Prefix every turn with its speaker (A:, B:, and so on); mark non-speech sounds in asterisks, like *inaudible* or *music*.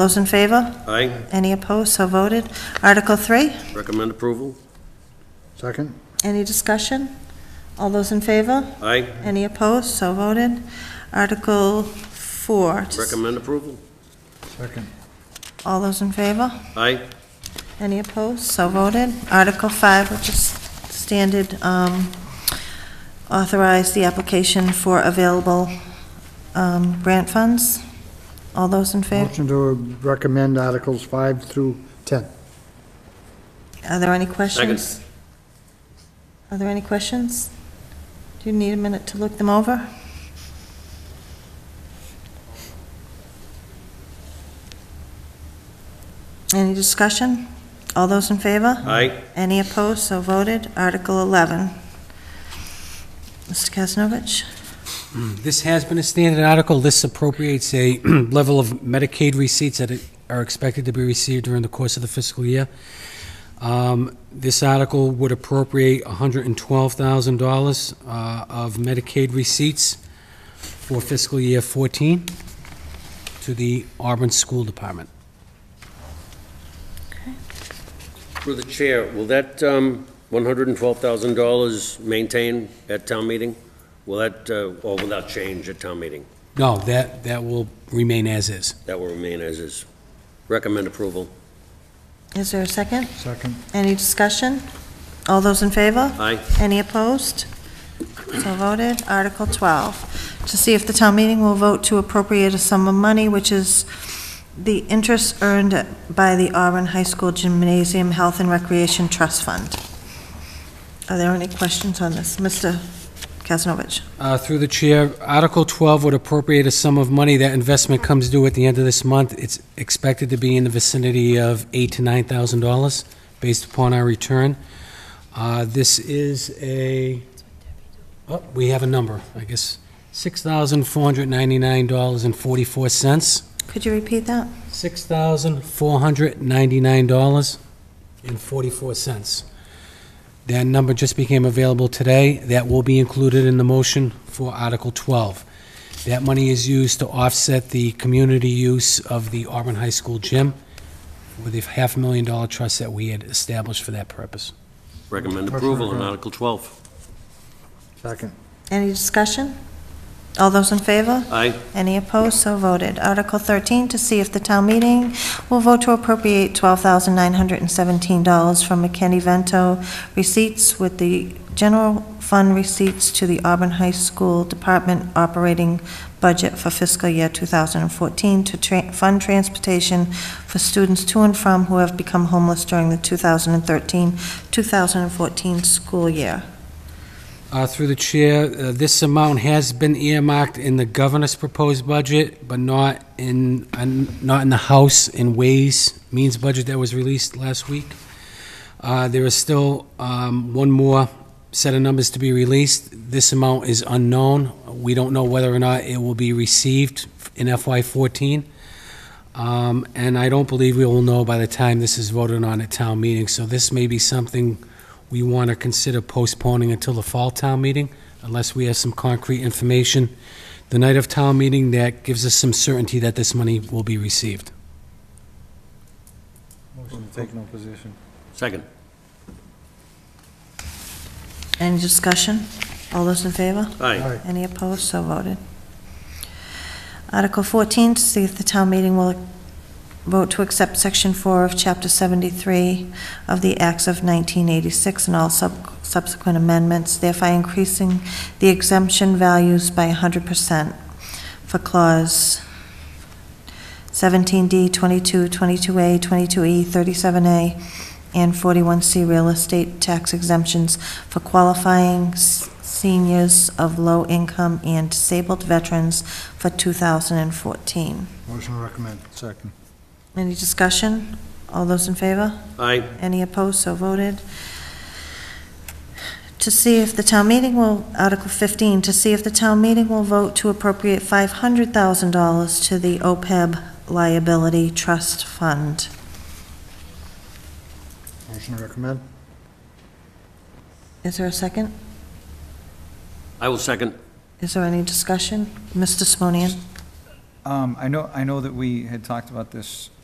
A: Those in favor?
B: Aye,
A: Any opposed? So voted. Article 3,
B: recommend approval.
C: Second?
A: any discussion? All those in favor?
B: Aye,
A: Any opposed? So voted. Article 4, just-
B: recommend approval.
C: Second.
A: all those in favor?
B: Aye,
A: Any opposed? So voted. Article 5, which is standard, um, authorize the application for available um, grant funds. All those in favor?
C: Motion to recommend Articles 5 through 10.
A: Are there any questions? Are there any questions? Do you need a minute to look them over? Any discussion? All those in favor?
B: aye,
A: Any opposed? So voted. Article 11. Mr. Kasnovich?
D: This has been a standard article. This appropriates a *clears throat* level of Medicaid receipts that are expected to be received during the course of the fiscal year. Um, This article would appropriate $112,000 uh, of Medicaid receipts for fiscal year 14 to the Auburn School Department.
B: through the chair, will that um, $112,000 maintain at town meeting? Will that, uh, or will that change at town meeting?
D: No, that, that will remain as is.
B: That will remain as is. Recommend approval.
A: Is there a second?
C: Second.
A: Any discussion? All those in favor?
B: Aye,
A: Any opposed? So voted. Article 12, to see if the town meeting will vote to appropriate a sum of money, which is the interest earned by the Auburn High School Gymnasium Health and Recreation Trust Fund. Are there any questions on this? Mr. Kasnovich?
D: Uh, Through the chair, Article 12 would appropriate a sum of money. That investment comes due at the end of this month. It's expected to be in the vicinity of eight to $9,000 based upon our return. Uh, This is a, oh, we have a number, I guess, $6,499.44.
A: Could you repeat that?
D: $6,499.44. That number just became available today. That will be included in the motion for Article 12. That money is used to offset the community use of the Auburn High School gym with a half million dollar trust that we had established for that purpose.
B: recommend approval on Article 12.
C: Second.
A: Any discussion? All those in favor?
B: Aye,
A: Any opposed? So voted. Article 13, to see if the town meeting will vote to appropriate $12,917 from McKinney-Vento receipts with the general fund receipts to the Auburn High School Department operating budget for fiscal year 2014 to tra- fund transportation for students to and from who have become homeless during the 2013-2014 school year.
D: Uh, Through the chair, uh, this amount has been earmarked in the governor's proposed budget, but not in, uh, not in the House and Ways Means budget that was released last week. Uh, There is still um, one more set of numbers to be released. This amount is unknown. We don't know whether or not it will be received in FY14. Um, And I don't believe we will know by the time this is voted on at town meeting. So this may be something we want to consider postponing until the fall town meeting, unless we have some concrete information the night of town meeting that gives us some certainty that this money will be received.
C: Motion to take no position.
B: second.
A: Any discussion? All those in favor?
B: Aye,
C: Aye.
A: Any opposed? So voted. Article 14, to see if the town meeting will vote to accept Section 4 of Chapter 73 of the Acts of 1986 and all sub- subsequent amendments, thereby increasing the exemption values by 100% for Clause 17D, 22, 22A, 22E, 37A, E, and 41C real estate tax exemptions for qualifying s- seniors of low income and disabled veterans for 2014.
C: Motion to recommend. Second.
A: Any discussion? All those in favor?
B: aye,
A: Any opposed? So voted. To see if the town meeting will, Article 15, to see if the town meeting will vote to appropriate $500,000 to the OPEB liability trust fund.
C: Motion to recommend.
A: Is there a second?
B: I will second.
A: Is there any discussion? Mr. Simonian?
E: Um, I know, I know that we had talked about this